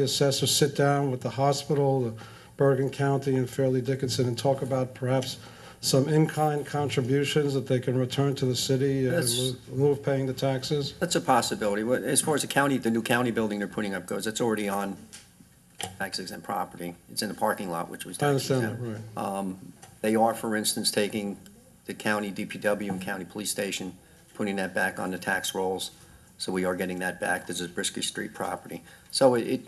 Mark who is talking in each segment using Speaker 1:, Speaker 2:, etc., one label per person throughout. Speaker 1: The assessor sit down with the hospital, Bergen County, and Fairleigh Dickinson and talk about perhaps some in-kind contributions that they can return to the city in
Speaker 2: That's-
Speaker 1: lieu- in lieu of paying the taxes?
Speaker 2: That's a possibility. What- As far as the county, the new county building they're putting up goes, that's already on tax exempt property. It's in the parking lot, which was
Speaker 1: I
Speaker 2: tax
Speaker 1: understand that,
Speaker 2: exempt.
Speaker 1: right.
Speaker 2: Um, They are, for instance, taking the county DPW and county police station, putting that back on the tax rolls. So we are getting that back. This is Brisky Street property. So it, it-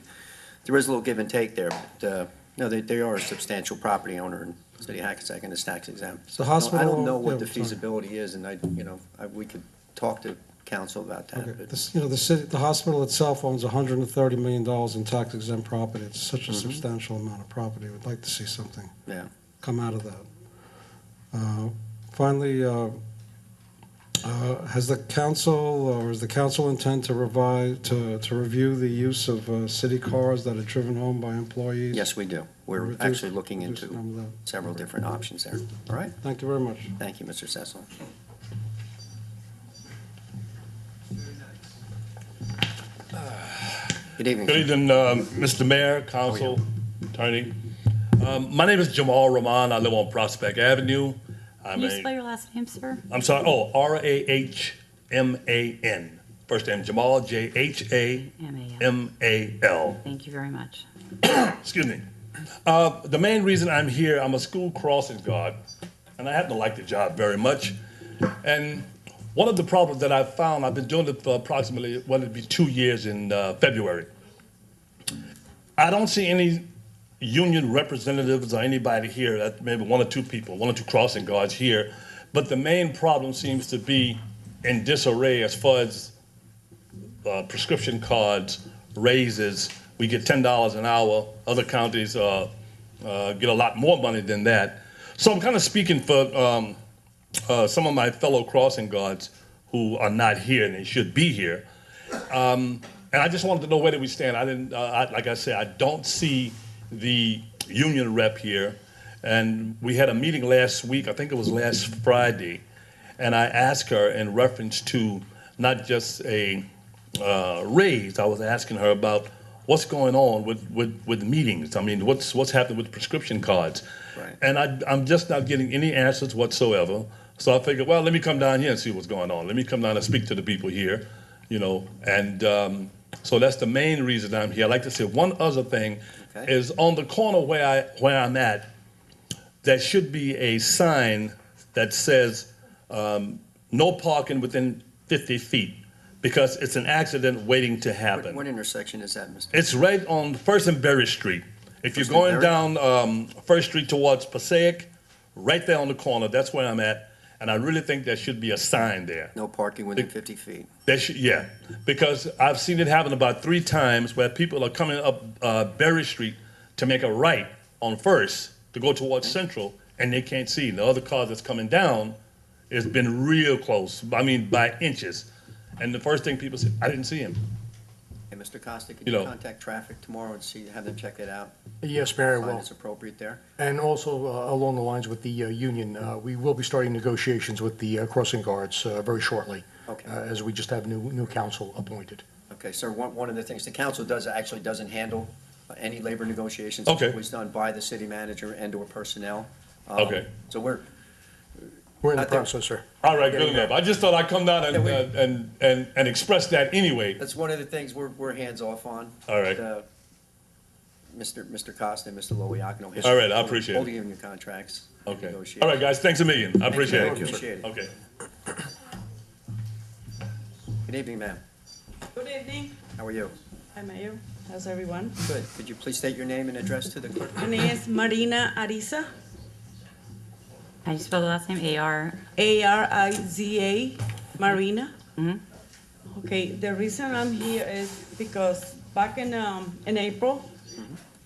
Speaker 2: there is a little give and take there, but, uh, no, they, they are a substantial property owner in the city of Hackensack and it's tax exempt.
Speaker 1: The
Speaker 2: So I don't- I
Speaker 1: hospital-
Speaker 2: don't know
Speaker 1: yeah,
Speaker 2: what the
Speaker 1: sorry.
Speaker 2: feasibility is and I, you know, I, we could talk to council about that.
Speaker 1: Okay,
Speaker 2: Uh, but-
Speaker 1: This- You know, the city, the hospital itself owns hundred and thirty million dollars in tax exempt property. It's such
Speaker 2: Mm-hmm.
Speaker 1: a substantial amount of property. We'd like to see something
Speaker 2: Yeah.
Speaker 1: come out of that. Uh, Finally, uh, uh, has the council, uh, or is the council intent to revise, to, to review the use of uh, city cars that are driven home by employees?
Speaker 2: Yes, we do. We're
Speaker 1: Reduce-
Speaker 2: actually looking
Speaker 1: reduce the
Speaker 2: into
Speaker 1: number of that.
Speaker 2: several different options there. All right?
Speaker 1: Thank you very much.
Speaker 2: Thank you, Mr. Cecil. Good
Speaker 3: Good
Speaker 2: evening.
Speaker 3: evening, um, Mr. Mayor, Council, Attorney. Um, My name is Jamal Rahman. I live on Prospect Avenue. I'm
Speaker 4: Can you
Speaker 3: a-
Speaker 4: spell your last name, sir?
Speaker 3: I'm sorry, oh, R-A-H-M-A-N. First name Jamal, J-H-A-M-A-L.
Speaker 4: Thank you very much.
Speaker 3: Excuse me. Uh, The main reason I'm here, I'm a school crossing guard, and I happen to like the job very much. And one of the problems that I found, I've been doing it for approximately, well, it'd be two years in uh, February. I don't see any union representatives or anybody here, that maybe one or two people, one or two crossing guards here. But the main problem seems to be in disarray as far as uh, prescription cards, raises. We get ten dollars an hour. Other counties uh, uh, get a lot more money than that. So I'm kind of speaking for um, uh, some of my fellow crossing guards who are not here and they should be here. Um, And I just wanted to know where do we stand. I didn't, uh, I, like I said, I don't see the union rep here. And we had a meeting last week, I think it was last Friday, and I asked her in reference to not just a uh, raise, I was asking her about what's going on with, with, with meetings. I mean, what's, what's happening with prescription cards?
Speaker 2: Right.
Speaker 3: And I, I'm just not getting any answers whatsoever. So I figured, well, let me come down here and see what's going on. Let me come down and speak to the people here, you know. And um, so that's the main reason I'm here. I'd like to say one other thing
Speaker 2: Okay.
Speaker 3: is on the corner where I where I'm at, there should be a sign that says um, no parking within 50 feet because it's an accident waiting to
Speaker 2: What
Speaker 3: happen.
Speaker 2: what intersection is that, Mr.?
Speaker 3: It's right on First and Berry Street. If you're
Speaker 2: First and
Speaker 3: going
Speaker 2: Berry?
Speaker 3: down um, First Street towards Passaic, right there on the corner, that's where I'm at. And I really think there should be a sign there.
Speaker 2: No parking within 50 feet.
Speaker 3: There should, yeah, because I've seen it happen about three times where people are coming up uh, Berry Street to make a right on First to go towards Central, and they can't see. The other car that's coming down has been real close. I mean, by inches. And the first thing people say, I didn't see him.
Speaker 2: Hey, Mr. Costa, can
Speaker 3: You
Speaker 2: you
Speaker 3: know.
Speaker 2: contact traffic tomorrow and see, have them check it out?
Speaker 5: Yes, Mayor, I
Speaker 2: Find
Speaker 5: will.
Speaker 2: it's appropriate there?
Speaker 5: And also, uh, along the lines with the uh, union, uh, we will be starting negotiations with the uh, crossing guards uh, very shortly,
Speaker 2: Okay.
Speaker 5: uh, as we just have new, new council appointed.
Speaker 2: Okay, sir, one, one of the things, the council does, actually doesn't handle uh, any labor negotiations.
Speaker 3: Okay.
Speaker 2: It's always done by the city manager and/or personnel. Um,
Speaker 3: Okay.
Speaker 2: So we're,
Speaker 5: We're in
Speaker 2: I
Speaker 5: the
Speaker 2: think-
Speaker 5: process, sir.
Speaker 3: All right, good enough. I just thought I'd come down and,
Speaker 2: Yeah, we-
Speaker 3: uh, and, and, and express that anyway.
Speaker 2: That's one of the things we're, we're hands-off on.
Speaker 3: All right.
Speaker 2: Uh, Mr. Mr. Costa and Mr. Loiacono.
Speaker 3: All right, I appreciate it.
Speaker 2: Holding union contracts. and
Speaker 3: Okay.
Speaker 2: negotiations.
Speaker 3: All right, guys, thanks a million. I
Speaker 2: Thank you.
Speaker 3: appreciate it.
Speaker 2: Appreciate it.
Speaker 3: Okay.
Speaker 2: Good evening, ma'am.
Speaker 6: Good evening.
Speaker 2: How are you?
Speaker 6: Hi, Mayor. How's everyone?
Speaker 2: Good. Could you please state your name and address to the clerk?
Speaker 6: My name is Marina Ariza,
Speaker 4: How do you spell the last name? A-R,
Speaker 6: A-R-I-Z-A, Marina. Okay, the reason I'm here is because back in, um, in April,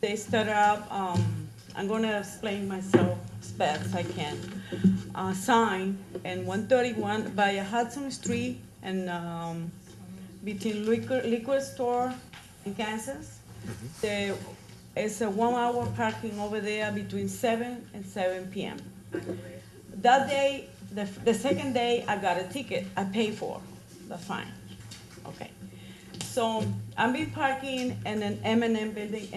Speaker 6: they started up, um, I'm gonna explain myself as best as I can. A sign in one thirty-one by Hudson Street and, um, between liquor, liquor store and Kansas. There is a one-hour parking over there between seven and seven PM. That day, the, the second day, I got a ticket I paid for, that's fine, okay. So I've been parking in an M and M building